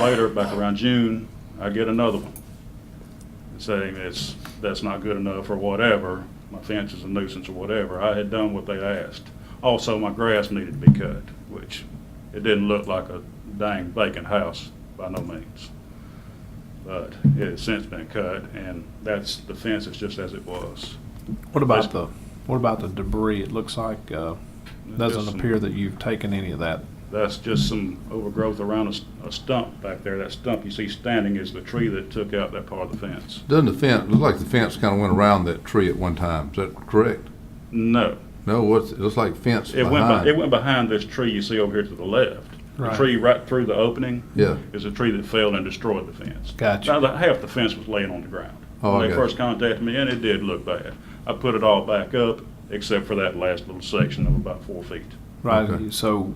Later, back around June, I get another one saying that's, that's not good enough or whatever, my fence is a nuisance or whatever. I had done what they asked. Also, my grass needed to be cut, which it didn't look like a dang vacant house by no means. But it has since been cut and that's, the fence is just as it was. What about the, what about the debris? It looks like, uh, Just doesn't some- appear that you've taken any of that. That's just some overgrowth around a s- a stump back there. That stump you see standing is the tree that took out that part of the fence. Doesn't the fence, look like the fence kind of went around that tree at one time, is that correct? No, No, what's, it looks like fence It went, be- it behind. went behind this tree you see over here to the left. The Right. tree right through the opening Yeah, is a tree that fell and destroyed the fence. Gotcha. Now, the- half the fence was laying on the ground. Oh, I When they got you. first contacted me, and it did look bad. I put it all back up, except for that last little section of about four feet. Right, Okay. so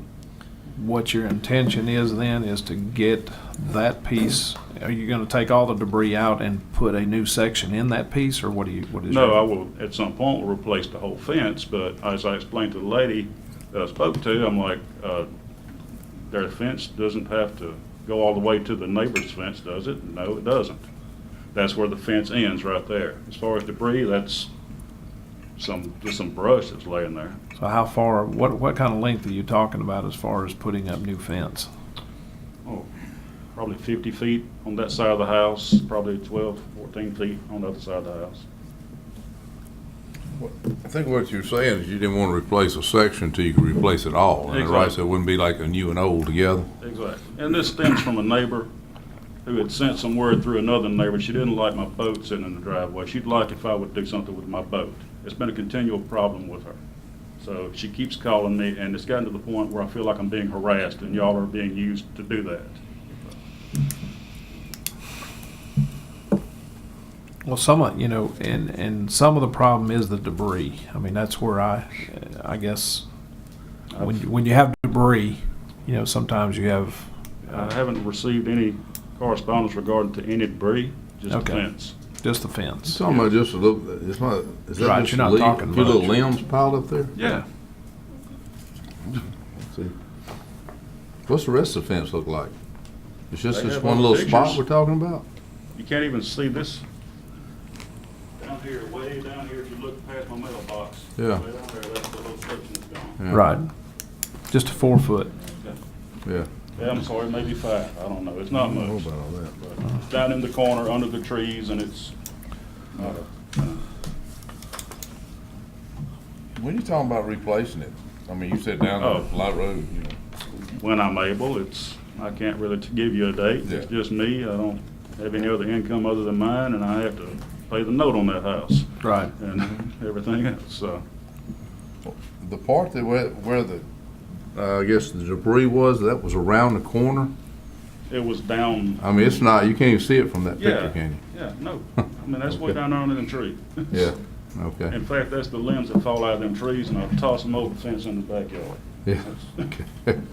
what your intention is then is to get that piece, are you gonna take all the debris out and put a new section in that piece, or what do you, what is? No, your- I will, at some point, will replace the whole fence, but as I explained to the lady that I spoke to, I'm like, uh, their fence doesn't have to go all the way to the neighbor's fence, does it? No, it doesn't. That's where the fence ends, right there. As far as debris, that's some, just some brush that's laying there. So how far, what, what kind of length are you talking about as far as putting up new fence? Oh, Probably fifty feet on that side of the house, probably 12, 14 feet on the other side of the house. I think what you're saying is you didn't want to replace a section till you could replace it all, and right, so it wouldn't be like a new and old together. Exactly. And this stems from a neighbor who had sent some word through another neighbor. She didn't like my boat sitting in the driveway. She'd like if I would do something with my boat. It's been a continual problem with her. So she keeps calling me, and it's gotten to the point where I feel like I'm being harassed, and y'all are being used to do that. Well, some of, you know, and, and some of the problem is the debris. I mean, that's where I, I guess, when, you- when you have debris, you know, sometimes you have, I haven't received any correspondence regarding to any debris, just a Okay. fence. just the fence. Talking about just a little, it's not, is Right, that just you're a not leaf, a talking few little much. limbs piled up there? Yeah. See. What's the rest of the fence look like? It's just They this have one all the little spot pictures. we're talking about? You can't even see this down here, way down here, if you look past my mailbox. Yeah. Way down there, that's the little section that's gone. Yeah, Right. Just a four foot. Yeah. Yeah, I'm sorry, maybe five, I don't know, it's I not don't know much. about all that. but It's down in the corner, under the trees, and it's, not a- When you talking about replacing it, I mean, you said down Oh. on the Light Road, you know. when I'm able, it's, I can't really t- give you a date. It's Yeah. just me, I don't have any other income other than mine, and I have to pay the note on that house Right. and everything else, so. The part that where, where the, uh, I guess the debris was, that was around the corner? It was down, I mean, it's not, you can't even see it from that picture, yeah, can yeah, no, I mean, that's way Okay. down there under them tree. you? Yeah, okay. In fact, that's the limbs that fall out of them trees, and I toss them over the fence in the backyard. Yeah. Okay.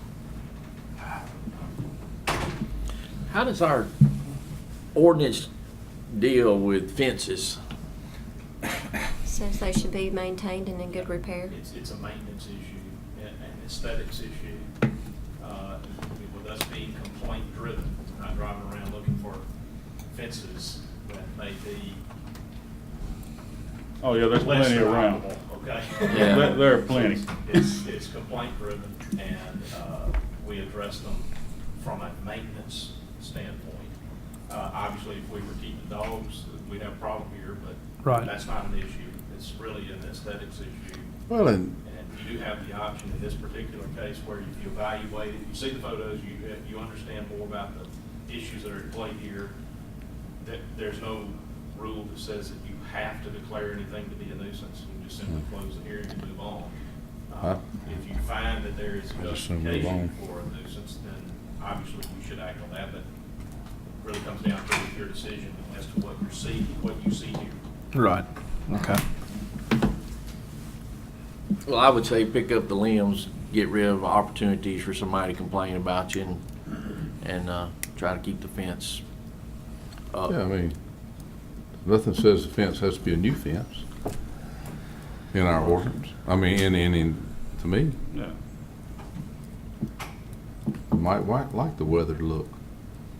How does our ordinance deal with fences? Says they should be maintained and in good repair. It's, it's a maintenance issue and an aesthetics issue, uh, with us being complaint driven, not driving around looking for fences that may be Oh, yeah, there's less plenty around. drivable, okay? Yeah. There- there are plenty. It's, it's complaint driven and, uh, we address them from a maintenance standpoint. Uh, obviously, if we were keeping dogs, we'd have a problem here, but Right. that's not an issue. It's really an aesthetics issue. Well, and And you do have the option in this particular case where if you evaluate it, you see the photos, you, uh, you understand more about the issues that are at play here, that there's no rule that says that you have to declare anything to be a nuisance. You can just simply Hmm. close the hearing and move on. Uh, Huh? If you find that there is I just assume move on. justification for a nuisance, then obviously you should act on that, but it really comes down to your decision as to what you're seeing, what you see here. Right. Okay. Well, I would say pick up the limbs, get rid of opportunities for somebody to complain about you and, and, uh, try to keep the fence up. Yeah, I mean, nothing says the fence has to be a new fence in our ordinance. I mean, in, in, in, to me, Yeah. might, might like the weathered look.